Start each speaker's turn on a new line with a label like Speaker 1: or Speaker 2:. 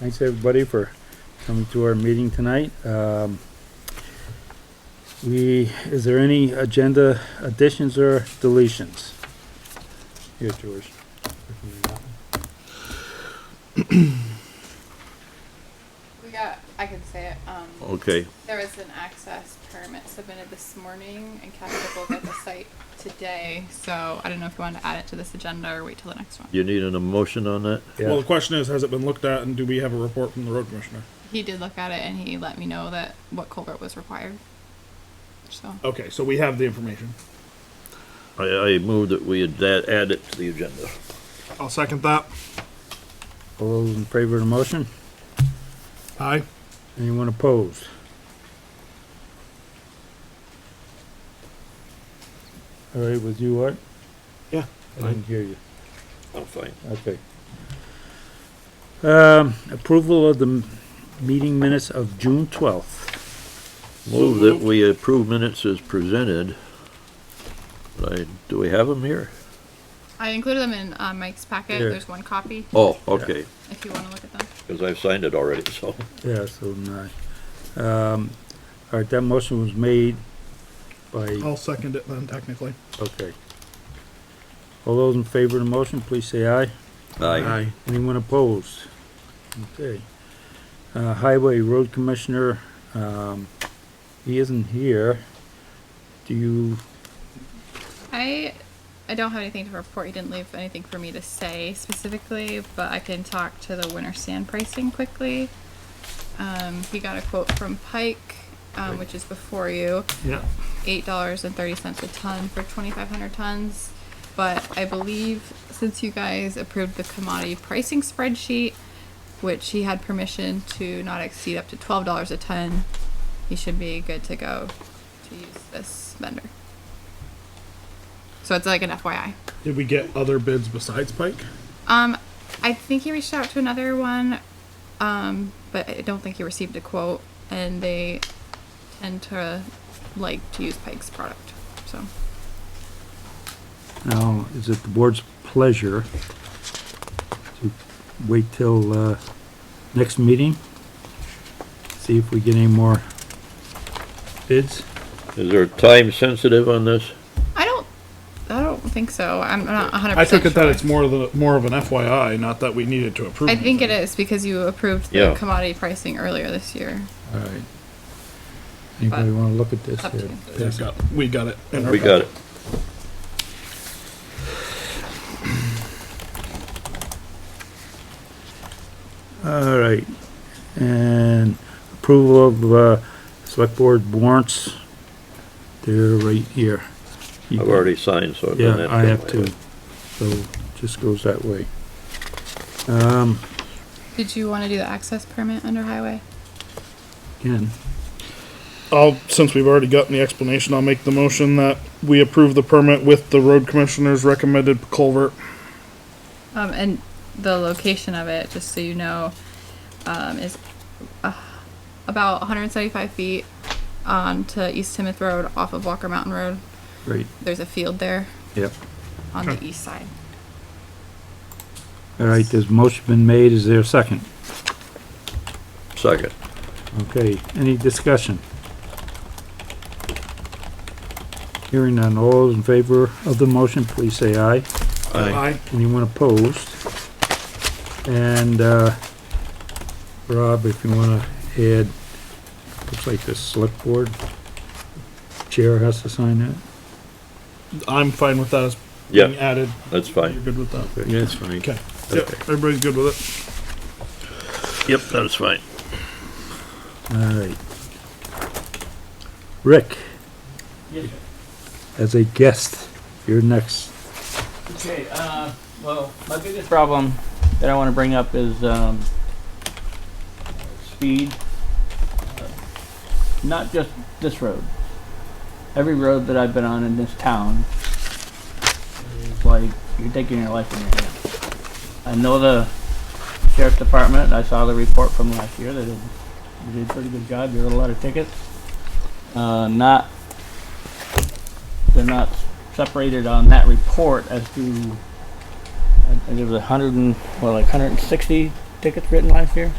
Speaker 1: Thanks, everybody, for coming to our meeting tonight. Um, We, is there any agenda additions or deletions? Here, George.
Speaker 2: We got, I can say it, um,
Speaker 3: Okay,
Speaker 2: there was an access permit submitted this morning and Capital got the site today, so I don't know if you want to add it to this agenda or wait till the next one.
Speaker 3: you need an emotion on that?
Speaker 1: Yeah.
Speaker 4: Well, the question is, has it been looked at, and do we have a report from the road commissioner?
Speaker 2: He did look at it and he let me know that what culvert was required. So,
Speaker 4: Okay, so we have the information.
Speaker 3: I, I move that we add, add it to the agenda.
Speaker 4: I'll second that.
Speaker 1: All those in favor of the motion?
Speaker 4: Aye.
Speaker 1: Anyone opposed? All right, with you, Art?
Speaker 4: Yeah,
Speaker 1: I didn't hear you.
Speaker 3: I'm fine.
Speaker 1: Okay. Um, approval of the m- meeting minutes of June twelfth.
Speaker 3: Move that we approve minutes as presented. I, do we have them here?
Speaker 2: I included them in, uh, Mike's packet,
Speaker 1: Here.
Speaker 2: there's one copy,
Speaker 3: Oh, okay,
Speaker 2: if you want to look at them.
Speaker 3: because I've signed it already, so.
Speaker 1: Yeah, so nine. Um, all right, that motion was made by,
Speaker 4: I'll second it then, technically.
Speaker 1: okay. All those in favor of the motion, please say aye.
Speaker 3: Aye.
Speaker 1: Anyone opposed? Okay. Uh, Highway Road Commissioner, um, he isn't here. Do you,
Speaker 2: I I don't have anything to report. He didn't leave anything for me to say specifically, but I can talk to the winter sand pricing quickly. Um, he got a quote from Pike, um, which is before you,
Speaker 4: Yeah.
Speaker 2: eight dollars and thirty cents a ton for twenty five hundred tons. But I believe since you guys approved the commodity pricing spreadsheet, which he had permission to not exceed up to twelve dollars a ton, he should be good to go to use this vendor. So it's like an FYI.
Speaker 4: Did we get other bids besides Pike?
Speaker 2: Um, I think he reached out to another one, um, but I don't think he received a quote, and they tend to like to use Pike's product. So
Speaker 1: now, is it the board's pleasure to wait till, uh, next meeting? See if we get any more bids?
Speaker 3: Is there time sensitive on this?
Speaker 2: I don't, I don't think so. I'm not 100.
Speaker 4: I took it that it's more the, more of an FYI, not that we needed to approve.
Speaker 2: I think it is because you approved the
Speaker 3: Yeah.
Speaker 2: commodity pricing earlier this year.
Speaker 1: All right. Anybody wanna look at this?
Speaker 2: Up to you.
Speaker 4: We've
Speaker 1: here?
Speaker 4: got, we got it. in our
Speaker 3: We got it.
Speaker 1: All right, and approval of, uh, select board warrants. They're right here. You
Speaker 3: I've
Speaker 1: got-
Speaker 3: already signed, so. I've done
Speaker 1: Yeah,
Speaker 3: that
Speaker 1: I have
Speaker 3: anyway.
Speaker 1: to, so just goes that way. Um,
Speaker 2: Did you want to do the access permit under highway?
Speaker 1: again,
Speaker 4: I'll, since we've already gotten the explanation, I'll make the motion that we approve the permit with the road commissioner's recommended culvert.
Speaker 2: Um, and the location of it, just so you know, um, is uh, about 175 feet on to East Timoth Road off of Walker Mountain Road.
Speaker 1: great,
Speaker 2: There's a field there
Speaker 1: yep.
Speaker 2: on the east side.
Speaker 1: All right, there's motion been made, is there a second?
Speaker 3: Second.
Speaker 1: Okay, any discussion? Hearing none, all those in favor of the motion, please say aye.
Speaker 4: Aye.
Speaker 1: Anyone opposed? And, uh, Rob, if you wanna add, looks like the select board chair has to sign that.
Speaker 4: I'm fine with that as being
Speaker 3: Yeah,
Speaker 4: added.
Speaker 3: that's
Speaker 4: You're
Speaker 3: fine.
Speaker 4: good with that?
Speaker 1: Yeah, it's fine.
Speaker 4: Okay. Yep, everybody's good with it.
Speaker 3: Yep, that's fine.
Speaker 1: All right. Rick? As a guest, you're next.
Speaker 5: Okay, uh, well, my biggest problem that I want to bring up is um, speed. Uh, Not just this road. Every road that I've been on in this town is like you're taking your life in your hands. I know the sheriff's department. I saw the report from last year. They did, they did a pretty good job. They wrote a lot of tickets. Uh, not they're not separated on that report as uh, to, I think there was a hundred and, well, like hundred and sixty tickets written last year?